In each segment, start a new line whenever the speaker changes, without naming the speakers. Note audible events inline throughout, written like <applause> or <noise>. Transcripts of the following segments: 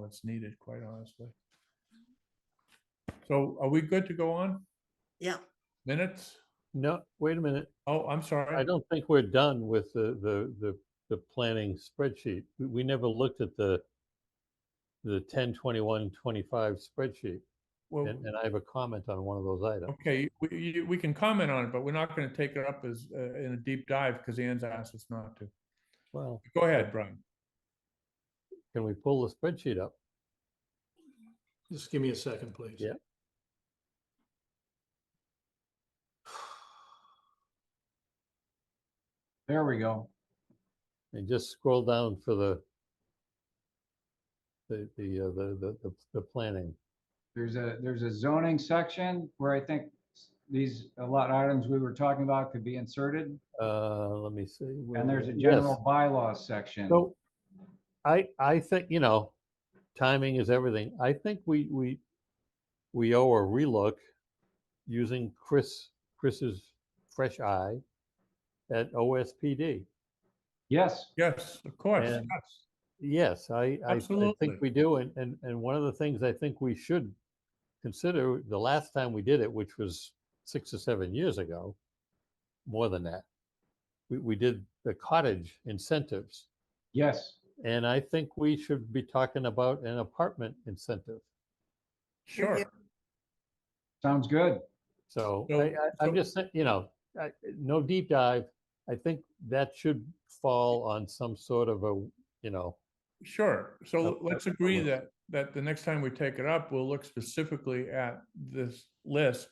what's needed, quite honestly. So are we good to go on?
Yeah,
Minutes?
No, wait a minute.
Oh, I'm
I
sorry.
don't think we're done with the, the, the, the planning spreadsheet. We, we never looked at the, the 10, 21, 25 spreadsheet.
Well,
And, and I have a comment on one of those items.
okay, we, you- we can comment on it, but we're not going to take it up as, uh, in a deep dive because Ann's asked us not to.
Well,
Go ahead, Brian.
can we pull the spreadsheet up?
Just give me a second, please.
Yeah.
There we go.
And just scroll down for the, the, the, uh, the, the, the, the planning.
There's a, there's a zoning section where I think s- these, a lot of items we were talking about could be inserted.
Uh, let me see. where
And there's
was
a
it?
general bylaws section.
So I, I think, you know, timing is everything. I think we, we, we owe a relook using Chris, Chris's fresh eye at OSPD.
Yes,
Yes, of course.
And-
yes.
Yes, I, I, I
Absolutely.
think we do. And, and, and one of the things I think we should consider, the last time we did it, which was six or seven years ago, more than that, we, we did the cottage incentives.
yes.
And I think we should be talking about an apartment incentive.
Sure.
Sounds good.
So
So-
I, I,
so-
I'm just, saying, you know, I, no deep dive. I think that should fall on some sort of a, you know,
Sure, so
Up-
let's
up-
agree
up.
that, that the next time we take it up, we'll look specifically at this list.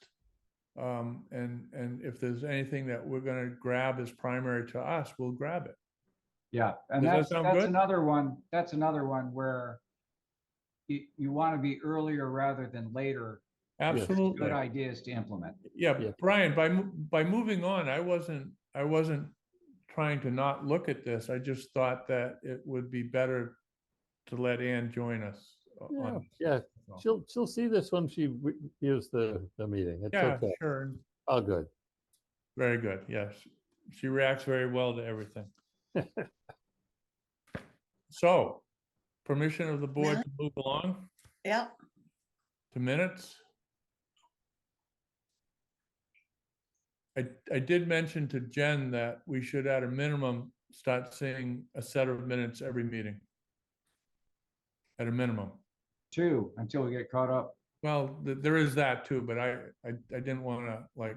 Um, and, and if there's anything that we're gonna grab as primary to us, we'll grab it.
Yeah,
Does
and
that
that's,
sound
that's
good?
another one, that's another one where you, you want to be earlier rather than later. with
Absolutely.
Good ideas to implement.
Yeah,
Yeah.
Brian, by, mo- by moving on, I wasn't, I wasn't trying to not look at this. I just thought that it would be better to let Ann join us. o-
Yeah,
on this.
yeah,
So-
she'll, she'll see this when she re- hears the, the meeting. It's
Yeah,
okay.
sure,
All good.
very good, yes. She reacts very well to everything. So, permission of the board to move along
yeah,
to minutes? I, I did mention to Jen that we should at a minimum start seeing a set of minutes every meeting. At a minimum.
Two, until we get caught up.
Well, th- there is that too, but I, I, I didn't want to like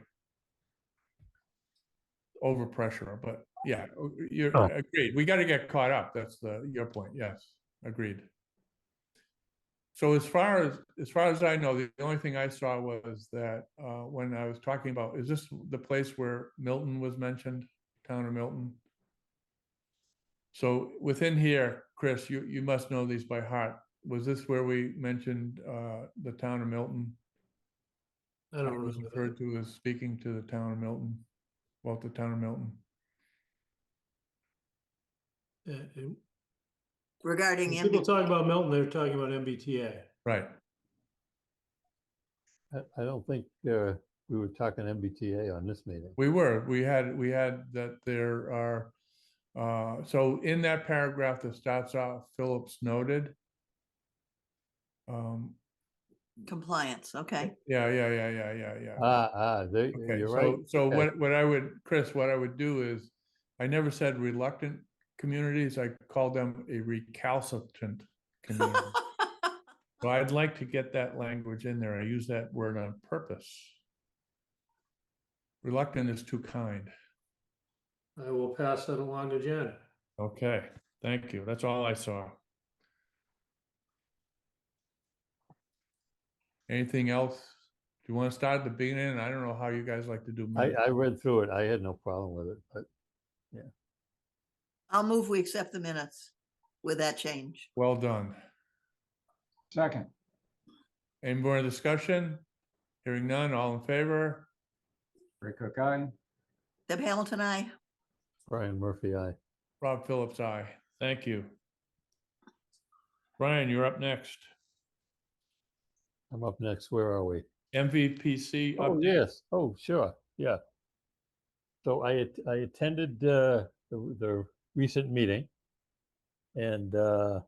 overpressure, but yeah, o- you're
Oh.
agreed. We got to get caught up. That's the, your point. Yes, agreed. So as far as, as far as I know, the only thing I saw was that, uh, when I was talking about, is this the place where Milton was mentioned? Town of Milton? So within here, Chris, you, you must know these by heart. Was this where we mentioned uh, the town of Milton?
I don't
was
remember. that.
Referred to as speaking to the town of Milton, about the town of Milton.
Uh, uh,
regarding
when People
MBTA.
talk about Milton, they're talking about MBTA.
Right.
I, I don't think, uh, we were talking MBTA on this meeting.
We were, we had, we had that there are, uh, so in that paragraph that starts off, Phillips noted. Um,
compliance, okay.
Yeah, yeah, yeah, yeah, yeah, yeah.
Ah, ah, there,
Okay,
you're right.
so, so
Okay.
what, what I would, Chris, what I would do is, I never said reluctant communities, I called them a recalcitrant
<laughs>
community. So I'd like to get that language in there, I use that word on purpose. Reluctant is too kind.
I will pass that along to Jen.
Okay, thank you, that's all I saw. Anything else? Do you want to start at the beginning? I don't know how you guys like to do.
I,
minutes.
I read through it. I had no problem with it, but
I'll move, we accept the minutes with that change.
Well done.
Second,
Any more discussion? Hearing none, all in favor?
Ray Cook, aye.
Deb Hamilton, I,
Brian Murphy, I,
Rob Phillips, aye. Thank you. Brian, you're up next.
I'm up next. Where are we?
MVPC
Oh,
update.
yes. Oh, sure. Yeah. So I, at- I attended uh, the, the recent meeting. And uh,